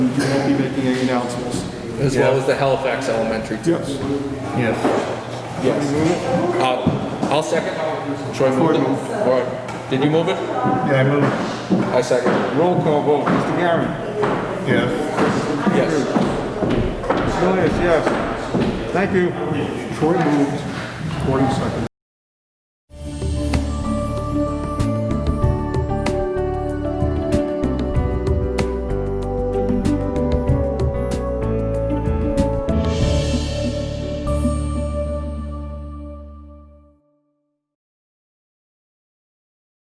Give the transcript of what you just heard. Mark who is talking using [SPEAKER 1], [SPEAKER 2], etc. [SPEAKER 1] you won't be making any announcements.
[SPEAKER 2] as well as the Halifax Elementary.
[SPEAKER 1] Yes.
[SPEAKER 2] Yes.
[SPEAKER 1] Yes.
[SPEAKER 2] I'll, Uh, I'll second. Troy moved
[SPEAKER 1] Ford
[SPEAKER 2] it.
[SPEAKER 1] moved.
[SPEAKER 2] All right. Did you move it?
[SPEAKER 3] Yeah, I moved.
[SPEAKER 2] I second.
[SPEAKER 1] Roll call vote, Mr. Garren.
[SPEAKER 3] Yes.
[SPEAKER 2] Yes.
[SPEAKER 1] Mr. Lewis, yes. Thank you. Troy moved, Gordon seconded.